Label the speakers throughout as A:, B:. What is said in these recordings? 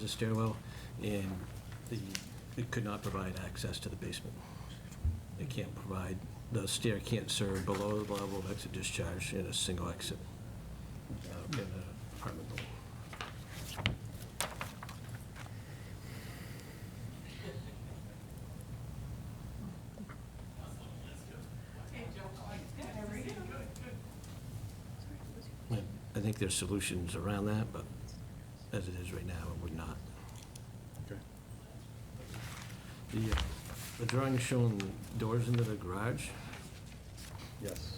A: the stairwell, and the, they could not provide access to the basement. They can't provide, the stair can't serve below the level of exit discharge in a single exit uh, in an apartment building. And I think there's solutions around that, but as it is right now, it would not.
B: Okay.
A: The, uh, the drawing is showing doors into the garage.
B: Yes.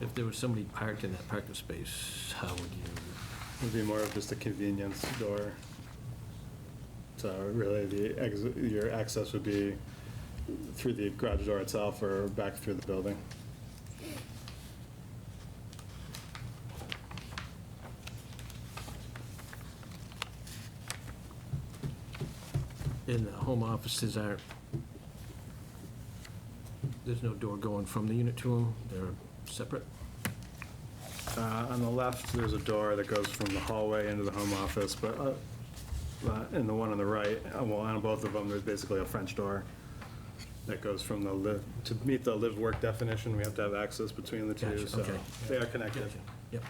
A: If there was somebody parked in that parking space, how would you,
B: It'd be more of just a convenience door. So really, the exit, your access would be through the garage door itself or back through the building.
A: and the home offices aren't, there's no door going from the unit to them, they're separate.
B: Uh, On the left, there's a door that goes from the hallway into the home office, but uh, uh, in the one on the right, uh, well, on both of them, there's basically a French door that goes from the, li- to meet the live-work definition, we have to have access between the two,
A: Gotcha,
B: so
A: okay.
B: they are connected.
A: Yep.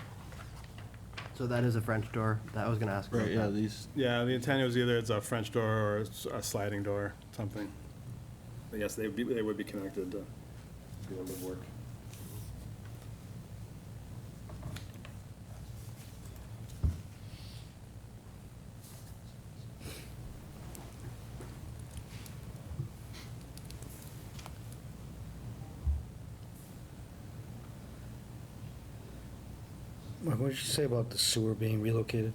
C: So that is a French door. That I was gonna ask about
D: Right, yeah,
C: that.
D: these,
B: Yeah, the intent was either it's a French door or it's a sliding door, something. But yes, they would be, they would be connected to the live work.
E: Mike, what did you say about the sewer being relocated?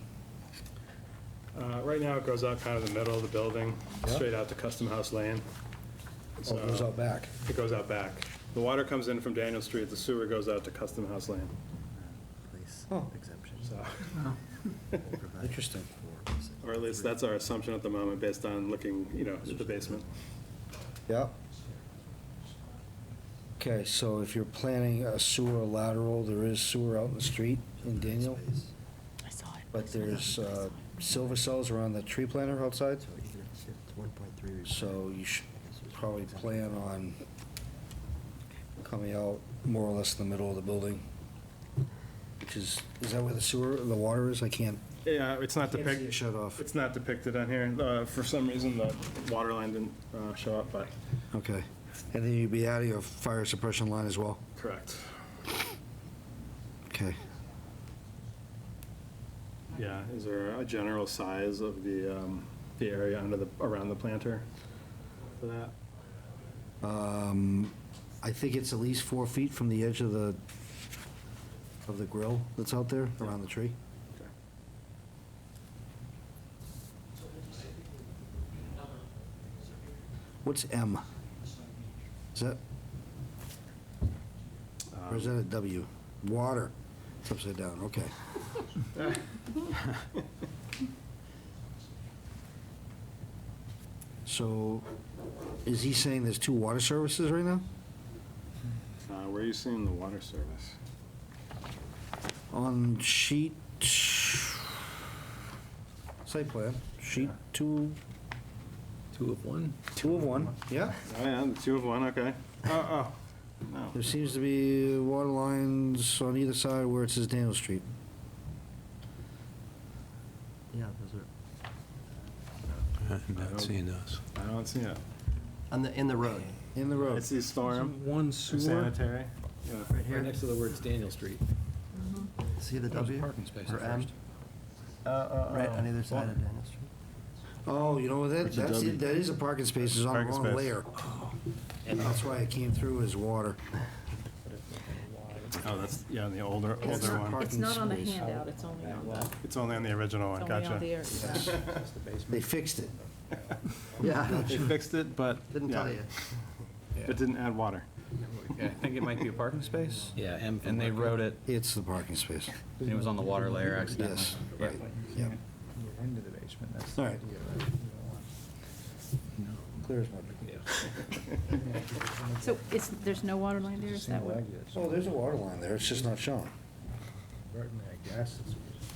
B: Uh, right now, it goes out kind of the middle of the building,
E: Yeah.
B: straight out to Custom House Lane.
E: Oh, it goes
B: So-
E: out back.
B: It goes out back. The water comes in from Daniel Street, the sewer goes out to Custom House Lane,
C: Place
E: Oh.
C: exemption.
B: so,
C: Provide
E: Interesting.
C: for visit.
B: or at least that's our assumption at the moment, based on looking, you know, at the basement.
E: Yeah. Okay, so if you're planning a sewer lateral, there is sewer out in the street in Daniel,
C: Space.
F: I saw it.
E: but there's uh, silver cells around the tree planter outside,
C: So even if it's just 1.3 required,
E: so you should
C: I guess there's
E: probably
C: exemption.
E: plan on coming out more or less in the middle of the building, which is, is that where the sewer, the water is? I can't,
B: Yeah, it's not
E: can't see it
B: depicted,
E: shut off.
B: it's not depicted on here. Uh, For some reason, the water line didn't uh, show up, but,
E: Okay. And then you'd be out of your fire suppression line as well?
B: correct.
E: Okay.
B: Yeah, is there a general size of the, um, the area under the, around the planter for that?
E: Um, I think it's at least four feet from the edge of the, of the grill that's out there, around the tree.
B: Okay.
E: What's M? Is that, or is that a W? Water. It's upside down, okay. So, is he saying there's two water services right now?
B: Uh, Where are you seeing the water service?
E: On sheet, site plan, sheet two,
D: two of one?
E: two of one, yeah.
B: Oh, yeah, the two of one, okay. Oh, oh, no.
E: There seems to be water lines on either side where it says Daniel Street.
C: Yeah, those are,
D: I'm
B: I don't-
D: not seeing those.
B: I don't see it.
C: on the, in the road.
E: In the road.
B: It's the storm,
D: One
B: sanitary. Yeah.
C: Right here.
D: to the words Daniel Street.
C: See the W?
D: parking space
C: Or
D: at
C: M?
D: first.
C: Uh, Right on either side of Daniel Street.
E: Oh, you know, what, that,
D: It's a
E: that's,
D: W.
E: it, that is a parking space, it's on the
B: Parking
E: wrong
B: space.
E: layer. And that's why it came through as water.
B: Oh, that's, yeah, the older,
E: It's
B: older
E: not
B: one.
E: park-
F: It's not on the
E: Parking space.
F: handout, it's only on the, it's
B: It's only on the original one,
F: only on the
B: gotcha.
F: air.
E: They fixed it.
C: Yeah,
B: They fixed it, but.
C: didn't
B: yeah,
C: tell you.
B: It didn't add water.
G: Yeah, I think it might be a parking space,
D: Yeah, M
G: and they wrote it,
E: It's the parking space,
G: and it was on the water layer accidentally.
E: yes, right, yeah.
G: Into the basement, that's
E: All right. Clear as mud.
F: So it's, there's no water line there, is that what?
E: Oh, there's a water line there, it's just not shown.
H: Burton, I guess, it's